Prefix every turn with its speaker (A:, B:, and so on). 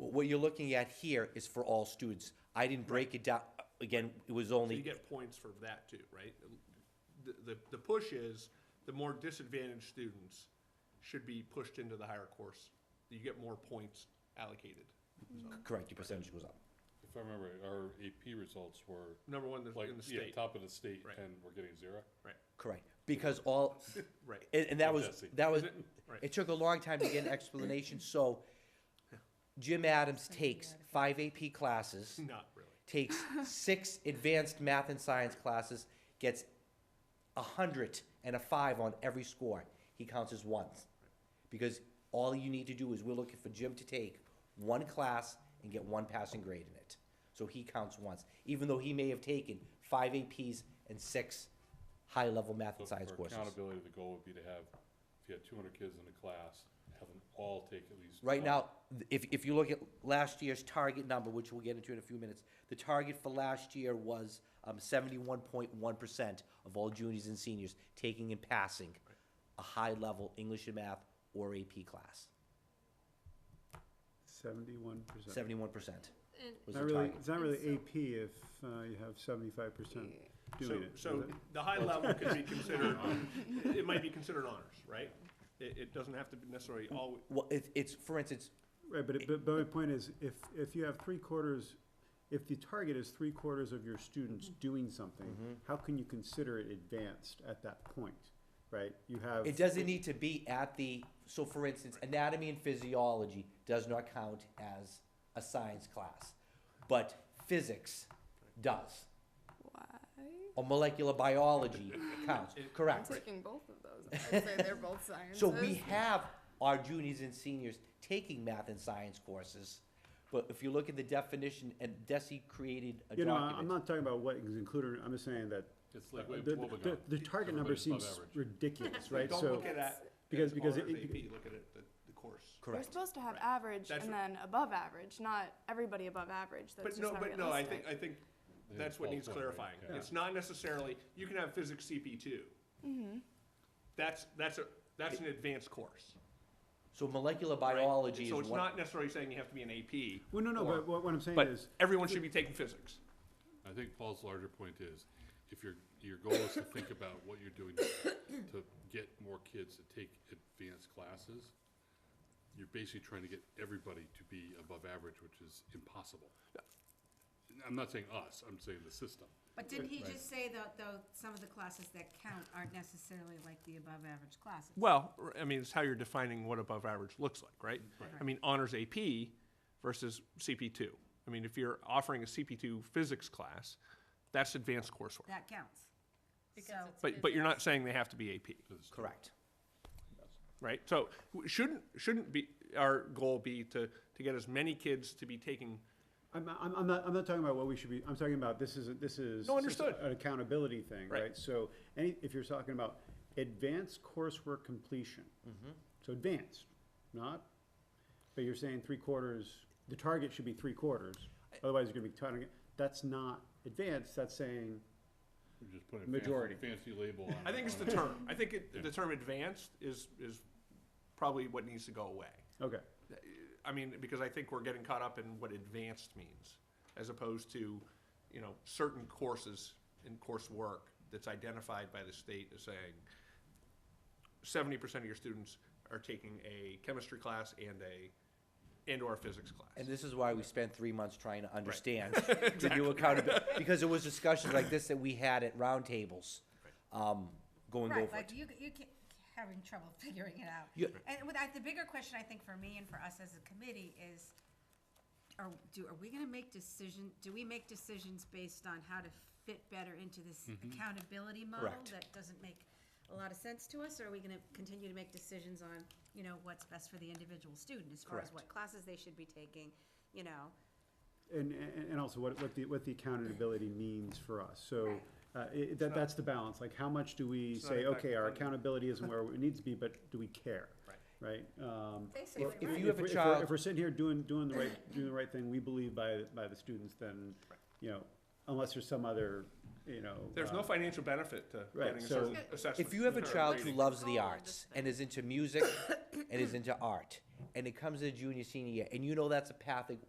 A: what you're looking at here is for all students. I didn't break it down, again, it was
B: So you
A: only,
B: get points for that too, right? The, the, the push is, the more disadvantaged students should be pushed into the higher course. You get more points allocated.
A: correct, your percentage goes up.
C: If I remember, our AP results were
B: Number one in the-
C: like,
B: in the
C: yeah,
B: state,
C: top of the state
B: Right.
C: and we're getting zero.
B: right,
A: Correct, because all,
B: right.
A: and, and that was,
C: Fantastic.
A: that was,
B: Right.
A: it took a long time to get an explanation, so Jim Adams takes five AP classes,
B: Not really.
A: takes six advanced math and science classes, gets a hundred and a five on every score. He counts as ones. Because all you need to do is, we're looking for Jim to take one class and get one passing grade in it. So he counts once, even though he may have taken five APs and six high-level math
C: So
A: and science
C: for
A: courses.
C: Accountability, the goal would be to have, if you had two hundred kids in a class, have them all take at least.
A: Right
C: one.
A: now, th- if, if you look at last year's target number, which we'll get into in a few minutes, the target for last year was um, seventy-one point one percent of all juniors and seniors taking and passing a high-level English and math or AP class,
D: Seventy-one percent.
A: seventy-one percent
E: And
A: was
D: Not
A: the
D: really,
A: target.
D: it's not really AP if uh, you have seventy-five percent
B: So,
D: doing it.
B: um, so
D: is it?
B: the high level could be considered, it might be considered honors, right? It, it doesn't have to be necessarily all,
A: Well, it, it's, for instance,
D: Right, but, it- but, but my point is, if, if you have three quarters, if the target is three quarters of your students
B: Mm-hmm.
D: doing something,
A: Mm-hmm.
D: how can you consider it advanced at that point, right? You have.
A: it doesn't need to be at the, so for instance, anatomy and physiology does not count as a science class, but physics does,
E: why?
A: or molecular biology counts,
E: I'm
A: correct?
E: taking both of those. I'd say they're both sciences.
A: So we have our juniors and seniors taking math and science courses, but if you look at the definition, and Desi created a
D: You know, I- I'm
A: document.
D: not talking about what is included, I'm just saying that
C: It's
D: the,
B: Uh,
C: like, wait, what
D: the-
C: we
D: the,
C: got?
D: the target number
C: Everybody's above
D: seems
C: average.
D: ridiculous, right?
B: don't
D: So,
B: look at that.
D: because-
B: as
D: because
B: honors
D: it-
B: AP, look at it, the, the course.
E: You're
A: Correct.
E: supposed to have
B: Right.
E: average
B: That's
E: and
B: what-
E: then above average, not everybody above average. That's
B: But
E: just
B: no,
E: not
B: but no,
E: realistic.
B: I think, I think
C: They
B: that's what
C: fall
B: needs
C: somewhere,
B: clarifying.
C: yeah.
B: It's not necessarily, you can have physics CP 2
E: Mm-hmm.
B: That's, that's a, that's an advanced course.
A: So molecular
B: right?
A: biology is
B: So it's
A: one,
B: not necessarily saying you have to be an AP,
D: well, no, no,
B: Or-
D: but what, what I'm saying
B: but
D: is,
B: everyone should be taking physics.
C: I think Paul's larger point is, if your, your goal is to think about what you're doing to to get more kids to take advanced classes, you're basically trying to get everybody to be above average, which is impossible. I'm not saying us, I'm saying the system.
F: But didn't he just say though, though, some of the classes that count aren't necessarily like the above-average classes?
B: Well, r- I mean, it's how you're defining what above average looks like, right? I mean, honors AP versus CP2. I mean, if you're offering a CP2 physics class, that's advanced coursework.
F: That counts. So,
B: But, but you're not saying they have to be AP.
A: correct.
B: right? So w- shouldn't, shouldn't be, our goal be to, to get as many kids to be taking,
D: I'm, I'm, I'm not, I'm not talking about what we should be, I'm talking about this is, this is.
B: No, understood.
D: An accountability thing,
B: Right.
D: right? So, any, if you're talking about advanced coursework completion,
B: Mm-hmm.
D: so advanced, not, but you're saying three quarters, the target should be three quarters, otherwise you're gonna be targeting, that's not advanced, that's saying,
C: You're just putting a fancy,
D: Majority.
C: fancy label on it.
B: I think it's the
C: on it.
B: term. I think it,
C: Yeah.
B: the term advanced is, is probably what needs to go away.
D: okay,
B: I mean, because I think we're getting caught up in what advanced means, as opposed to, you know, certain courses and coursework that's identified by the state as saying seventy percent of your students are taking a chemistry class and a, and or a physics class.
A: And this is why we spent three months trying to understand the new accountability, because there was discussions like this that we had at roundtables, um, going over
F: Right, like
A: it.
F: you, you ca- having trouble figuring it out.
A: Yeah.
F: And with, I- the bigger question, I think, for me and for us as a committee is, are, do, are we gonna make decision, do we make decisions based on how to fit better into this accountability model?
A: Mm-hmm. Correct.
F: That doesn't make a lot of sense to us, or are we gonna continue to make decisions on, you know, what's best for the individual student? As far as
A: Correct.
F: what classes they should be taking, you know,
D: and, and, and also what, what the, what the accountability means for us, so.
F: Right.
D: Uh, it, that, that's the balance, like how much do we
B: not
D: say,
B: impact
D: okay, our
B: funding.
D: accountability isn't where it needs to be, but do we care? Right? Um,
F: basically,
A: If- if
F: right.
A: you have a
D: we're- we're-
A: child-
D: If we're sitting here doing, doing the right, doing the right thing, we believe by, by the students, then, you know, unless there's some other, you know.
B: There's
D: uh,
B: no financial benefit to
D: right,
B: getting a
D: so-
B: certain assessment.
A: If you have a
B: or
A: child who
B: rating.
A: loves the
E: Goal of
A: arts
E: this
A: and is into music and is into art, and it comes to junior, senior year, and you know that's a path that